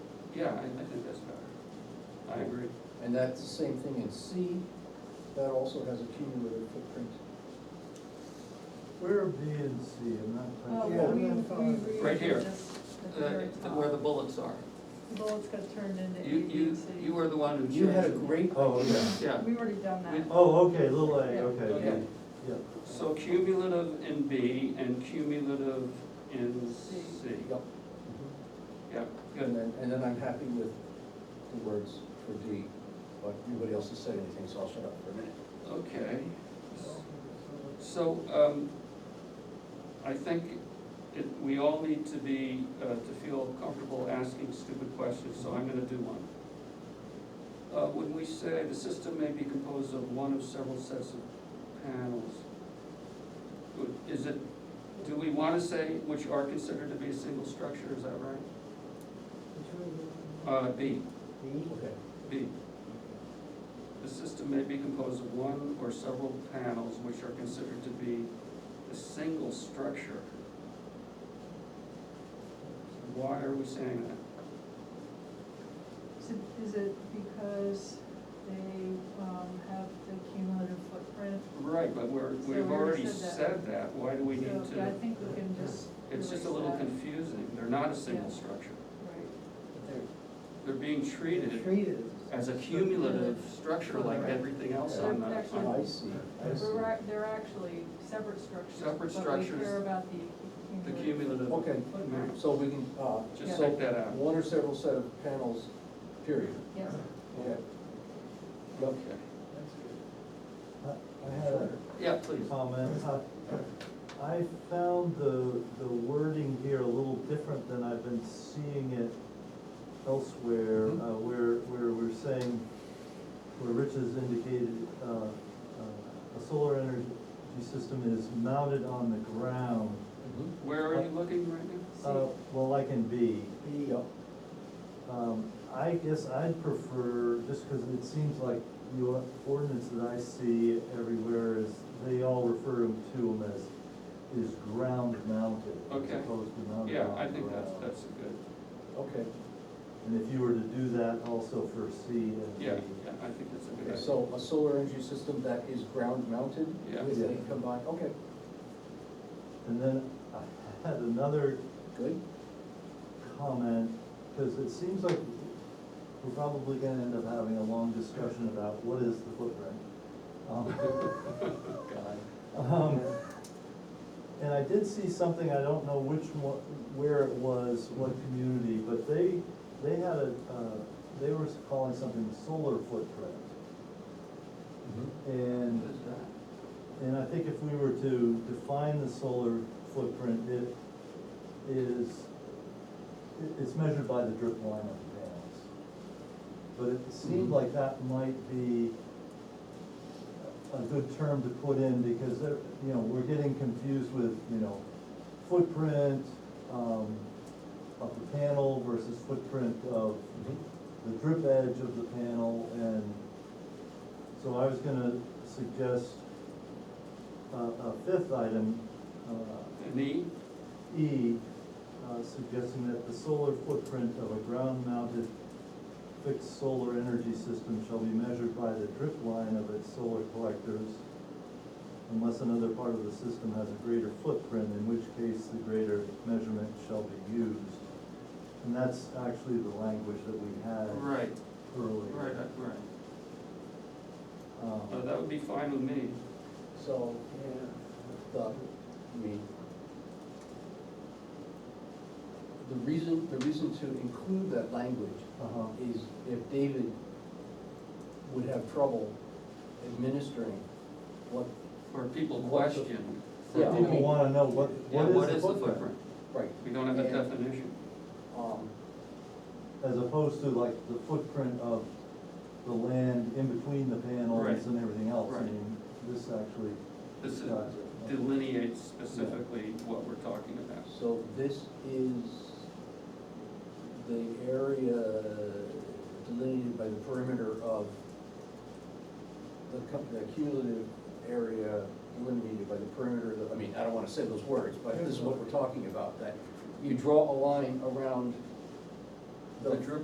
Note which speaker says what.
Speaker 1: Yeah, I, I think that's better. I agree.
Speaker 2: And that's the same thing in C, that also has a cumulative footprint.
Speaker 3: Where are B and C, I'm not
Speaker 4: Oh,
Speaker 3: quite
Speaker 2: Yeah,
Speaker 4: but
Speaker 3: sure.
Speaker 4: we,
Speaker 2: I'm
Speaker 4: we.
Speaker 1: Right here.
Speaker 4: rearranged this at the very
Speaker 1: Uh,
Speaker 4: top.
Speaker 1: Where the bullets are.
Speaker 4: Bullets got turned into A,
Speaker 1: You,
Speaker 4: B,
Speaker 1: you,
Speaker 4: and C.
Speaker 1: you are the one who.
Speaker 2: You had a
Speaker 1: changed it.
Speaker 2: great.
Speaker 3: Oh, yeah.
Speaker 1: Yeah,
Speaker 4: We've already done that.
Speaker 1: We-
Speaker 3: Oh, okay, little A, okay,
Speaker 1: yeah.
Speaker 3: yeah.
Speaker 1: So cumulative in B and cumulative in
Speaker 4: C.
Speaker 1: C.
Speaker 2: Yep.
Speaker 1: Yep,
Speaker 2: And
Speaker 1: good.
Speaker 2: then, and then I'm happy with the words for D, but nobody else has said anything, so I'll shut up for a minute.
Speaker 1: Okay. So, um, I think it, we all need to be, uh, to feel comfortable asking stupid questions, so I'm gonna do one. Uh, when we say the system may be composed of one of several sets of panels, would- is it, do we wanna say which are considered to be a single structure, is that right? Uh, B,
Speaker 2: Okay.
Speaker 1: B. The system may be composed of one or several panels which are considered to be a single structure. Why are we saying that?
Speaker 4: Is it, is it because they, um, have the cumulative footprint?
Speaker 1: Right, but we're,
Speaker 4: So we
Speaker 1: we've
Speaker 4: already
Speaker 1: already
Speaker 4: said that.
Speaker 1: said that, why do we need
Speaker 4: So, yeah, I
Speaker 1: to?
Speaker 4: think we can just.
Speaker 1: It's just a
Speaker 4: erase
Speaker 1: little
Speaker 4: that.
Speaker 1: confusing, they're not a single
Speaker 4: Yeah.
Speaker 1: structure.
Speaker 4: Right.
Speaker 1: They're being treated
Speaker 3: Treated.
Speaker 1: as a cumulative structure like
Speaker 3: Right.
Speaker 1: everything else on the,
Speaker 4: They're- they're-
Speaker 1: on-
Speaker 2: I see, I see.
Speaker 4: They're, ac- they're actually separate structures.
Speaker 1: Separate
Speaker 4: But we
Speaker 1: structures.
Speaker 4: care about the
Speaker 1: the
Speaker 4: cumulative.
Speaker 1: cumulative.
Speaker 2: Okay,
Speaker 4: footprint.
Speaker 2: so we can, uh,
Speaker 1: Just
Speaker 2: so
Speaker 1: take that out.
Speaker 2: one or several set of panels, period.
Speaker 4: Yes,
Speaker 2: Okay. Yep.
Speaker 1: Okay.
Speaker 3: I had a
Speaker 1: Yeah, please.
Speaker 3: comment. I- I found the, the wording here a little different than I've been seeing it elsewhere,
Speaker 1: Mhm.
Speaker 3: uh, where, where we're saying, where Rich has indicated, uh, uh, a solar energy system is mounted on the ground.
Speaker 2: Mhm.
Speaker 1: Where are you looking right now?
Speaker 3: Uh, well, like in B,
Speaker 2: Yep.
Speaker 3: Um, I guess I'd prefer, just because it seems like the ordinance that I see everywhere is, they all refer to them as, is ground mounted,
Speaker 1: Okay.
Speaker 3: as opposed to mounted on the ground.
Speaker 1: Yeah, I think that's, that's a good.
Speaker 2: Okay,
Speaker 3: And if you were to do that also for C and D.
Speaker 1: Yeah, yeah, I think that's a good idea.
Speaker 2: so a solar energy system that is ground mounted
Speaker 1: Yeah.
Speaker 2: with a combined, okay,
Speaker 3: And then I had another
Speaker 2: good.
Speaker 3: comment, because it seems like we're probably gonna end up having a long discussion about what is the footprint. Um,
Speaker 1: God.
Speaker 3: Um, And I did see something, I don't know which one, where it was, what community, but they, they had a, uh, they were calling something solar footprint. And, Mm-hmm.
Speaker 1: What is that?
Speaker 3: and I think if we were to define the solar footprint, it is, it- it's measured by the drip line of the panels. But it seemed
Speaker 2: Mhm.
Speaker 3: like that might be a good term to put in, because there, you know, we're getting confused with, you know, footprint, um, of the panel versus footprint of the drip edge of the panel, and so I was gonna suggest a, a Uh, fifth item, uh,
Speaker 1: An E?
Speaker 3: E, uh, suggesting that the solar footprint of a ground-mounted fixed solar energy system shall be measured by the drip line of its solar collectors unless another part of the system has a greater footprint, in which case the greater measurement shall be used. And that's actually the language that we had
Speaker 1: Right,
Speaker 3: earlier.
Speaker 1: right, uh, right.
Speaker 3: Um,
Speaker 1: Uh, that would be fine with me.
Speaker 2: So, the, I mean, the reason, the reason to include that language
Speaker 3: uh-huh.
Speaker 2: is if David would have trouble administering what,
Speaker 1: Or people
Speaker 2: What's the-
Speaker 1: question.
Speaker 2: Yeah,
Speaker 3: So people wanna know what,
Speaker 1: Yeah,
Speaker 3: what is the footprint?
Speaker 2: right,
Speaker 1: We don't have a
Speaker 2: And-
Speaker 1: definition.
Speaker 2: um,
Speaker 3: As opposed to like the footprint of the land in between the panels
Speaker 1: Right.
Speaker 3: and everything else, I
Speaker 1: Right.
Speaker 3: mean, this actually uh,
Speaker 1: This is-
Speaker 3: describes it.
Speaker 1: delineates specifically what we're talking about.
Speaker 2: so this is the area delineated by the perimeter of the cum- the cumulative area delineated by the perimeter, of the- I mean, I don't wanna say those words, but this is what we're talking about, that you draw a line around
Speaker 1: The drip